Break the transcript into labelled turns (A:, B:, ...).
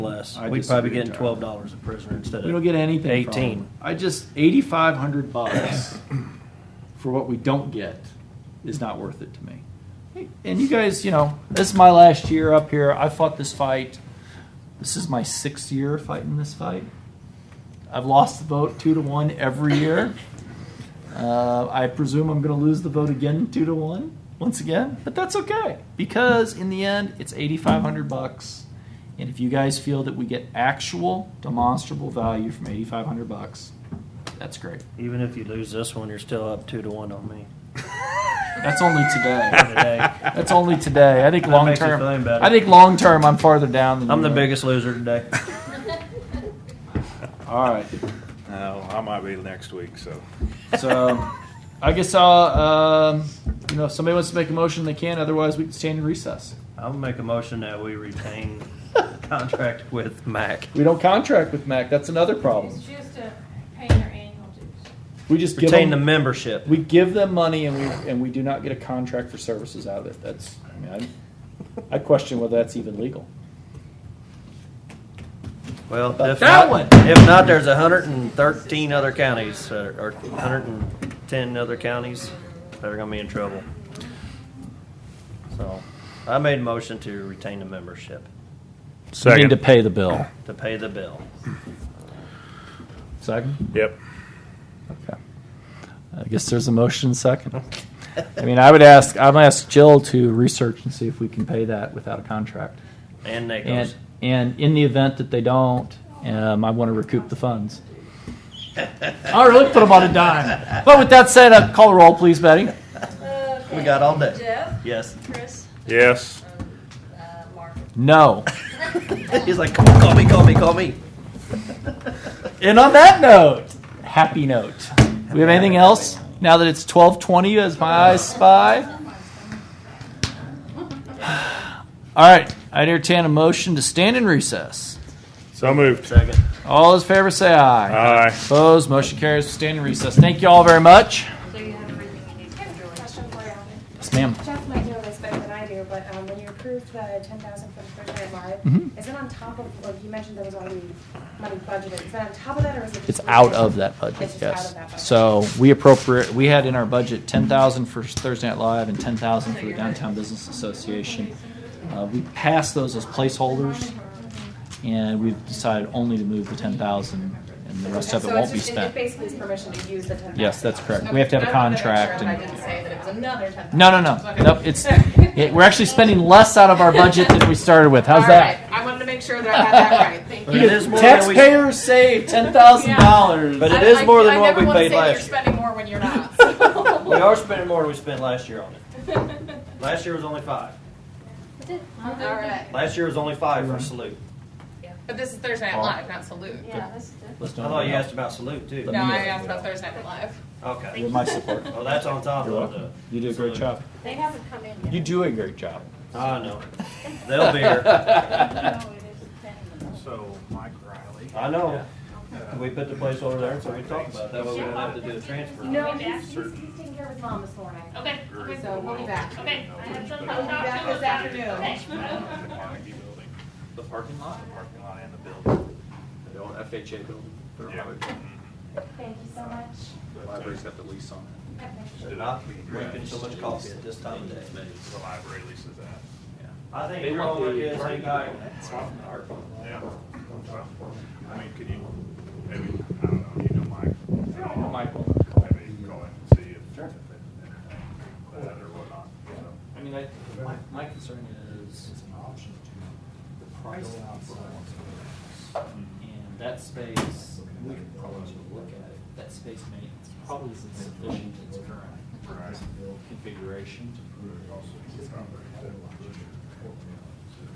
A: less.
B: I
A: We'd
B: disagree
A: probably getting
B: entirely.
A: twelve dollars a prisoner instead
B: We don't
A: of
B: get anything from
A: eighteen.
B: them. I just, eighty-five hundred bucks for what we don't get is not worth it to me. And you guys, you know, this is my last year up here. I fought this fight. This is my sixth year fighting this fight. I've lost the vote two to one every year. Uh, I presume I'm going to lose the vote again, two to one, once again. But that's okay because in the end, it's 8,500 bucks, and if you guys feel that we get actual demonstrable value from 8,500 bucks, that's great.
A: Even if you lose this one, you're still up two to one on me.
B: That's only today.
A: Today,
B: That's only today. I think
A: That
B: long
A: makes you
B: term.
A: feeling better.
B: I think long term, I'm farther down than
A: I'm
B: you
A: the
B: are.
A: biggest loser today.
B: All right.
C: No, I might be next week, so.
B: So, I guess I'll. Um, you know, if somebody wants to make a motion, they can. Otherwise, we can stand in recess.
A: I'll make a motion that we retain contract with Mac.
B: We don't contract with Mac. That's another problem.
D: It's just a paying their annual dues.
B: We just give
A: Retain the
B: them-
A: membership.
B: We give them money and we, and we do not get a contract for services out of it. That's, I mean, I, I question whether that's even legal.
A: Well,
B: But
A: if not,
B: that one-
A: if not, there's hundred and thirteen other counties, that are- or hundred and ten other counties that are gonna be in trouble. So, I made a motion to retain the membership,
C: Second.
B: pay the bill.
A: to pay the bill.
B: Second?
C: Yep.
B: Okay. I guess there's a motion second. I mean, I would ask, I'm gonna ask Jill to research and see if we can pay that without a contract.
A: And
B: And,
A: Nichols.
B: and in the event that they don't, um, I want to recoup the funds. All right, let's put them on a dime. But with that said, uh, call a roll, please, Betty.
A: We got all day.
D: Jeff,
A: Yes.
D: Chris,
C: Yes.
D: uh, Mark.
B: No.
A: He's like, "Come on, call me, call me, call me.
B: And on that note, happy note. We have anything else? Now that it's twelve twenty, as my eyes spy. All right, I entertain a motion to stand in recess.
C: So moved.
A: Second.
B: All those in favor say aye.
C: Aye.
B: Opposed, motion carries. We Stand in recess. Thank you all very much.
E: So you have everything you need to do your election.
F: Question for you.
B: Yes, ma'am.
F: Jeff might know this better than I do, but um, when you approved the ten thousand for the Thursday Night Live,
B: Mhm.
F: is it on top of? Like you mentioned, there was already money budgeted. Is that on top of that, or is it? Just
B: It's out of that budget,
F: It's just out
B: yes.
F: of that budget.
B: So we appropriate, we had in our budget ten thousand for Thursday Night Live and ten thousand for the Downtown Business Association. Uh, we passed those as placeholders, and we've decided only to move the ten thousand, and the rest of it
E: So
B: won't be
E: it's just- it-
B: spent.
F: It basically is permission to use the ten thousand.
B: Yes, that's correct. We have to have a
E: Okay, I wanted to make sure
B: contract
E: that I
B: and-
E: didn't say that it was another ten thousand.
B: No, no, no,
E: Okay.
B: nope, it's, it- we're actually spending less out of our budget than we started with, how's
E: All
B: that?
E: right, I wanted to make sure that I had that right, thank you.
A: It is more than we-
B: Taxpayers save ten thousand dollars.
A: But it
E: I-
A: is
E: I-
A: more than what we paid
E: I never wanna say that
A: last
E: you're
A: year.
E: spending more when you're not. so.
A: We are spending more than we spent last year on it. Last year was only five.
E: All right,
A: Last year was only five for salute.
E: but this is Thursday Night Live, not Salute.
D: Yeah, that's different.
A: I thought you asked about salute too.
B: Let
E: No,
B: me-
E: I asked about Thursday Night Live.
A: Okay.
B: With my support.
A: Well, that's on top
B: You're
A: of
B: welcome.
A: the.
B: You did a great job.
D: They haven't come in yet.
B: You do a great job.
A: I know. They'll be here.
D: No, it is pending.
G: So Mike Riley.
A: I know. We put the place over there, so we talk about it. That way we don't have to do a transfer.
F: No, he's, he's, he's taking care of his mom this morning.
E: Okay,
F: So we'll be back.
E: okay, I have some.
F: We'll be back this afternoon.
G: The parking lot? The parking lot and the building.
H: The old FHA building, the
G: Yeah.
H: library,
F: Thank you so much.
H: the library's got the lease on it.
A: They're not making so much coffee at this time of day.
G: The library leases that.
A: I think your homework is, hey, guy, Oh.
G: Yeah. Well, I mean, could you, maybe, I don't know, you know Mike? I know Michael. Maybe go and see if. if they- That or whatnot, so.
B: I mean, I, my, my concern is. It's an option to the price outside. And that space, we could probably just look at it, that space may, probably isn't sufficient in its current configuration.